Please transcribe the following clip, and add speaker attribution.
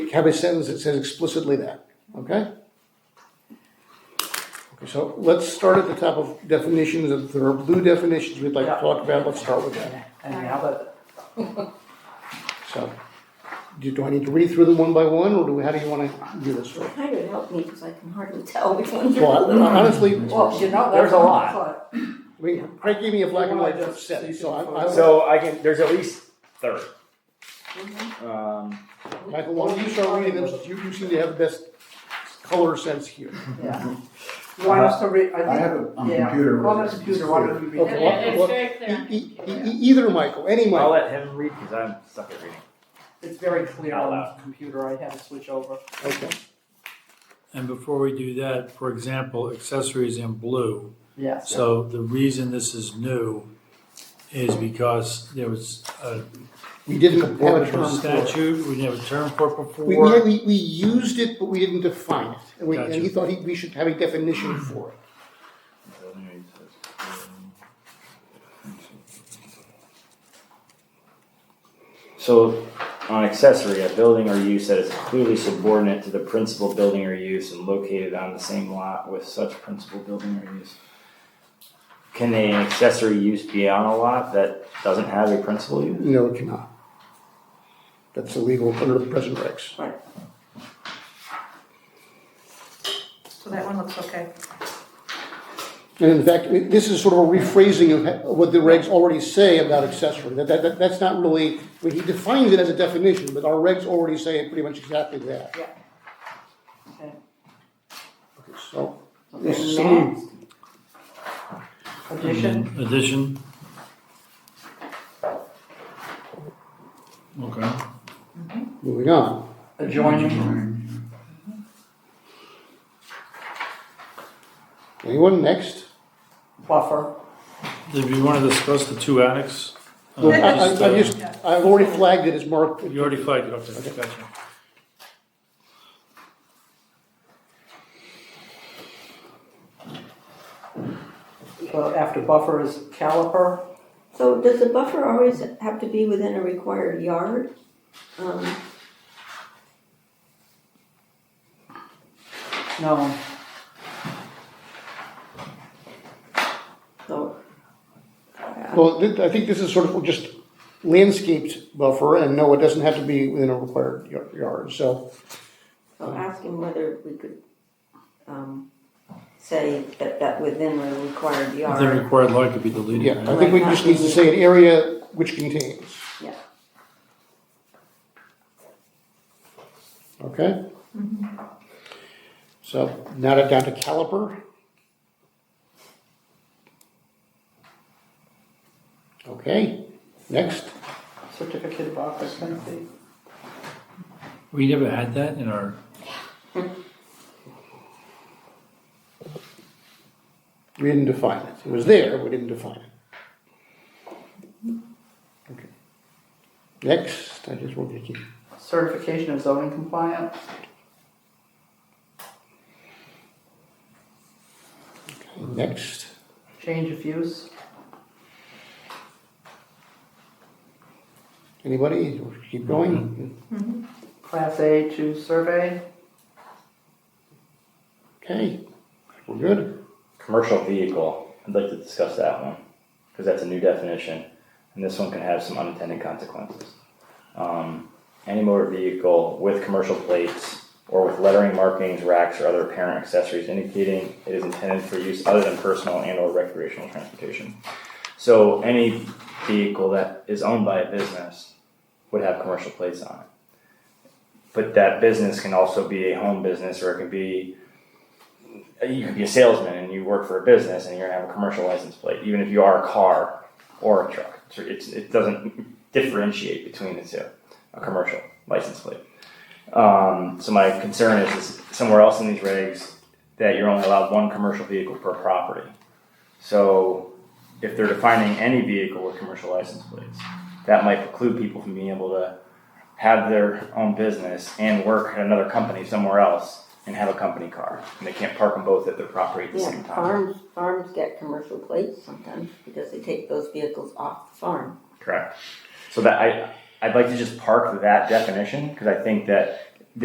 Speaker 1: have a sentence that says explicitly that, okay? Okay, so let's start at the top of definitions, if there are blue definitions we'd like to talk about, let's start with that,
Speaker 2: And now that,
Speaker 1: so. Do, do I need to read through them one by one, or do, we- how do you wanna do this? Or-
Speaker 3: Kind of helped me because I can hardly tell which one's
Speaker 1: Well, honestly,
Speaker 2: well, you know, there's a lot.
Speaker 1: I mean, Craig gave me a black and white set, so I, I,
Speaker 4: So I can, there's at least thirty. Um,
Speaker 1: Michael, why don't you start reading them, you, you seem to have the best color sense here.
Speaker 2: Yeah. You want us to read,
Speaker 5: Mm-hmm. I
Speaker 2: I
Speaker 5: have it on
Speaker 2: Yeah.
Speaker 5: computer.
Speaker 2: think, on the computer, why don't you read
Speaker 1: Okay,
Speaker 2: it?
Speaker 1: what-
Speaker 6: It's
Speaker 1: what-
Speaker 6: very
Speaker 1: E-
Speaker 6: clear.
Speaker 1: e- e- either Michael, any
Speaker 4: I'll
Speaker 1: Michael,
Speaker 4: let him read because I'm stuck at reading.
Speaker 2: It's very clear on the computer, I had to switch over.
Speaker 1: okay,
Speaker 7: And before we do that, for example, accessories in blue.
Speaker 2: Yes.
Speaker 7: So the reason this is new is because there was a
Speaker 1: we didn't have a term for it.
Speaker 7: statute, we didn't have a term for it
Speaker 1: We, we,
Speaker 7: before.
Speaker 1: we, we used it, but we didn't define it, and we, and he
Speaker 7: Gotcha.
Speaker 1: thought he, we should have a definition for it.
Speaker 4: So on accessory, a building or use that is clearly subordinate to the principal building or use and located on the same lot with such principal building or use. Can an accessory use be on a lot that doesn't have a principal use?
Speaker 1: No, it cannot. That's illegal under the present regs.
Speaker 8: So that one looks okay.
Speaker 1: And in fact, it- this is sort of a rephrasing of ha- what the regs already say about accessory. That, that, that- that's not really, I mean, he defines it as a definition, but our regs already say it pretty much exactly that.
Speaker 2: Yeah.
Speaker 1: Okay,
Speaker 2: Okay.
Speaker 1: so, this is
Speaker 2: Okay,
Speaker 1: some,
Speaker 2: next. Addition,
Speaker 7: Addition. Okay.
Speaker 1: moving on.
Speaker 5: Mm-hmm.
Speaker 2: adjoining,
Speaker 1: Anyone next?
Speaker 2: buffer,
Speaker 7: Did you want to discuss the two attics? Uh,
Speaker 1: Well, I, I, I
Speaker 7: uh,
Speaker 1: just, I've already flagged it as marked.
Speaker 7: You already flagged it, okay, gotcha.
Speaker 2: so after buffer is caliper,
Speaker 3: So does the buffer always have to be within a required yard? Um,
Speaker 2: no,
Speaker 3: so. uh,
Speaker 1: Well, th- I think this is sort of just landscaped buffer, and no, it doesn't have to be within a required yar- yard, so.
Speaker 3: So ask him whether we could, um, say that, that within a required
Speaker 7: The
Speaker 3: yard.
Speaker 7: required lot could be deleted.
Speaker 1: Yeah, I
Speaker 7: right?
Speaker 1: think we just need to say an area which contains.
Speaker 3: Yeah.
Speaker 1: Okay? So now to- down to caliper. Okay, next.
Speaker 2: certificate of occupancy.
Speaker 7: We never had that in our,
Speaker 1: We didn't define it. It was there, we didn't define it. Okay. Next, I just want to keep.
Speaker 2: Certification of zoning compliance,
Speaker 1: Next,
Speaker 2: change of use,
Speaker 1: anybody? Keep going.
Speaker 2: class A to survey,
Speaker 1: Okay, we're good.
Speaker 4: Commercial vehicle, I'd like to discuss that one, because that's a new definition, and this one can have some unintended consequences. Um, any motor vehicle with commercial plates or with lettering markings, racks, or other apparent accessories indicating it is intended for use other than personal and or recreational transportation. So any vehicle that is owned by a business would have commercial plates on it. But that business can also be a home business, or it can be you could be a salesman and you work for a business and you're gonna have a commercial license plate, even if you are a car or a truck. So It's, it doesn't differentiate between the two, a commercial license plate. Um, so my concern is, is somewhere else in these regs that you're only allowed one commercial vehicle per property. So if they're defining any vehicle with commercial license plates, that might preclude people from being able to have their own business and work at another company somewhere else and have a company car. And they can't park them both at their property at the
Speaker 3: Yeah,
Speaker 4: same time.
Speaker 3: farms, farms get commercial plates sometimes because they take those vehicles off the farm.
Speaker 4: Correct. So that I, I'd like to just park that definition because I think that